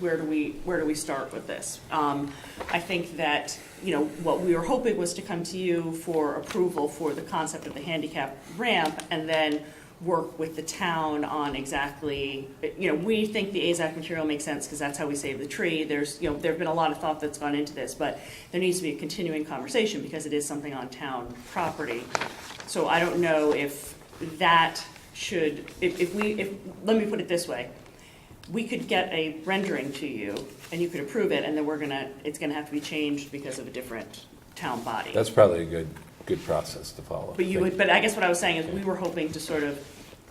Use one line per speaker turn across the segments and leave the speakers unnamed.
where do we, where do we start with this? Um, I think that, you know, what we were hoping was to come to you for approval for the concept of the handicap ramp, and then work with the town on exactly, you know, we think the AZAC material makes sense, because that's how we save the tree, there's, you know, there've been a lot of thought that's gone into this, but there needs to be a continuing conversation, because it is something on town property. So I don't know if that should, if, if we, if, let me put it this way. We could get a rendering to you and you could approve it and then we're gonna, it's gonna have to be changed because of a different town body.
That's probably a good, good process to follow.
But you would, but I guess what I was saying is we were hoping to sort of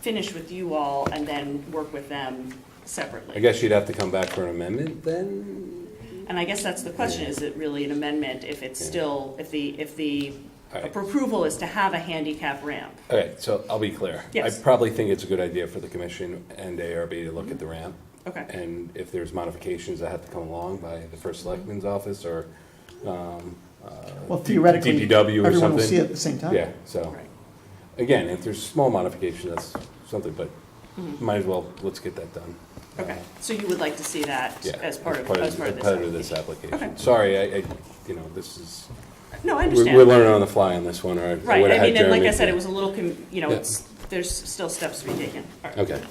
finish with you all and then work with them
I
separately.
guess you'd have to come back for an amendment then?
And I guess that's the question, is it really an amendment if it's
Yeah.
still, if the, if the
All right.
approval is to have a handicap ramp?
Okay, so I'll be clear.
Yes.
I probably think it's a good idea for the commission and ARB to look at the ramp.
Okay.
And if there's modifications that have to come along by the first
Mm-hmm.
selectman's office or, um, uh,
Well, theoretically,
DPW or
everyone will
something.
see it at the same time.
yeah, so.
Right.
Again, if there's small modification, that's something, but might as well, let's get that done.
Mm-hmm. Okay, so you would like to see that
Yeah.
as part of, as part of this?
Part of this
Okay.
application. Sorry, I, I, you know, this is,
No, I
we're
understand.
we're learning on the fly on this one, or I would
Right, I
have
mean, and like I
Jeremy-
said, it was a little, com- you know,
Yeah.
it's, there's still steps to be taken. All right.
Okay.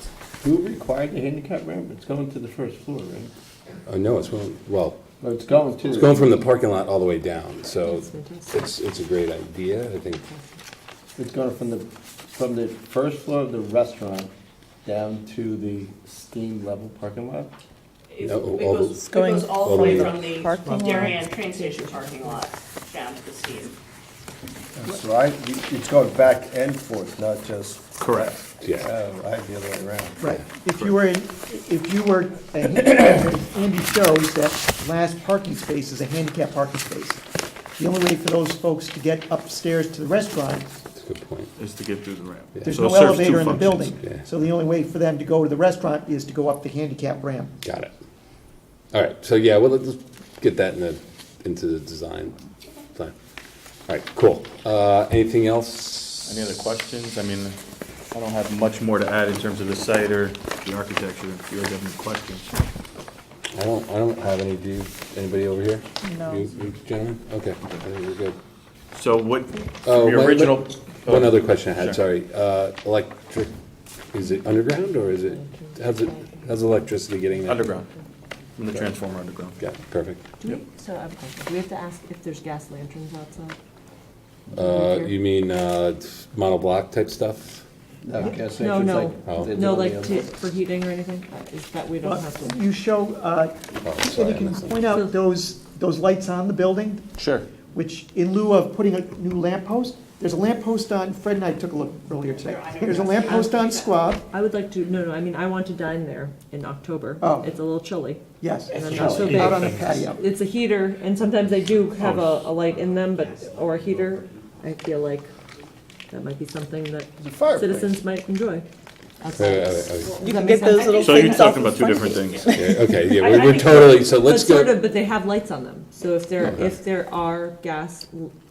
Who required the handicap ramp? It's going to the first floor, right?
Oh, no, it's, going- well,
Well, it's going to.
It's going from the parking lot all the way down, so it's, it's a great idea, I think.
It's going from the, from the first floor of the restaurant down to the steam level parking lot?
It
No,
it
all the-
goes, it goes all
all
the
the
way
way
from
Parking
the
lot.
Darien train station parking lot down to the steam.
So I, it's going back and forth, not just,
Correct.
Yeah,
oh, I the other way around.
Right. If you were in, if you were, a handicap, Andy shows that last parking space is a handicap parking space. The only way for those folks to get upstairs to the restaurant,
that's a good point.
is to get through the ramp.
there's
So it
no
serves two
elevator in the
functions.
Yeah.
building. So the only way for them to go to the restaurant is to go up the handicap ramp.
Got it. All right, so yeah, well, let's get that in the, into the design plan. All right, cool. Uh, anything else?
Any other questions? I mean, I don't have much more to add in terms of the site or the architecture, if you guys have any questions.
I don't, I don't have any, do you, anybody over here?
No.
You you gentlemen? Okay, I think we're good.
So what,
Oh,
your
one-
original. uh,
One other question I had,
Sure.
sorry. Uh, electric, is it underground or is it, how's it, how's electricity getting there?
Underground, from the transformer underground.
Yeah, perfect.
Do we, so I have a question. Do we have to ask if there's gas lanterns outside?
Uh,
Here?
you mean, uh, it's monoblock type stuff?
No, gas stations
No, no.
like they do
No,
on the
like
other-
to, for heating or anything? Uh, Is that, we don't have to?
You show, uh,
Oh,
and
sorry,
you
I
can
missed
point
that.
out those, those lights on the building,
Sure.
which in lieu of putting a new lamp post, there's a lamp post on, Fred and I took a look earlier today. There's a lamp post on Squab,
I would like to, no, no, I mean, I want to dine there in October.
Oh.
It's a little chilly.
yes,
And
it's
I'm not so big.
out on the patio.
It's a heater, and sometimes they do have a, a light in them, but, or a heater. I feel like that might be something that
There's a fireplace.
citizens might enjoy.
Wait, wait, wait, wait.
You can get those
So you're talking about two different things.
Yeah, Okay, yeah,
I- I
we're, we're
think-
totally, so let's
But sort
go,
of, but they have lights on them, so if there,
Okay.
if there are gas,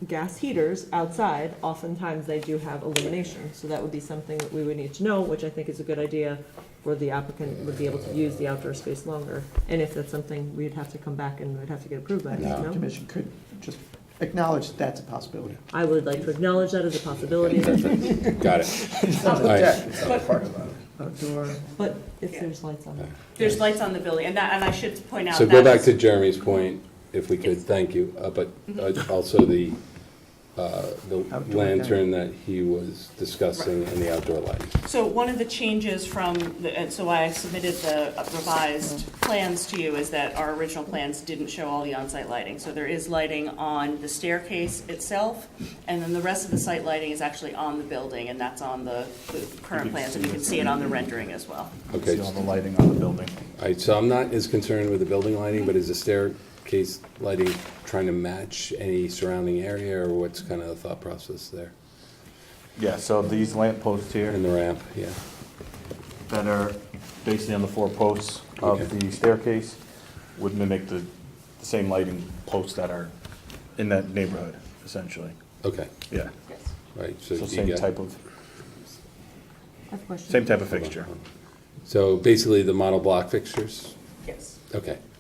gas heaters outside, oftentimes they do have illumination. So that would be something that we would need to know, which I think is a good idea, where the applicant would be able to use the outdoor space longer. And if that's something, we'd have to come back and we'd have to get approved by, us,
No.
no?
Commission could just acknowledge that that's a possibility.
I would like to acknowledge that as a possibility,
got it.
It's not
All
a
right.
deck, it's not a parking lot.
Outdoor.
but if there's lights on.
There's lights on the building, and that, and I should point out that.
So go back
is-
to Jeremy's point, if we could, thank you, uh, but uh, also the, uh, the
Outdoor
lantern that he was discussing and the outdoor lighting.
So one of the changes from, the- and so I submitted the revised plans to you, is that our original plans didn't show all the on-site lighting. So there is lighting on the staircase itself, and then the rest of the site lighting is actually on the building, and that's on the the current plans, and you can see it on the rendering as well.
Okay,
See all the lighting on the building.
all right, so I'm not as concerned with the building lighting, but is the staircase lighting trying to match any surrounding area, or what's kind of the thought process there?
Yeah, so these lamp posts here
And the ramp, yeah,
that are basically on the four posts
Okay.
of the staircase would mimic the the same lighting posts that are in that neighborhood, essentially.
okay,
Yeah,
right, so.
so
you
same
got-
type of,
I have a question.
same type of fixture.
So basically, the model block fixtures,
Yes.
Okay.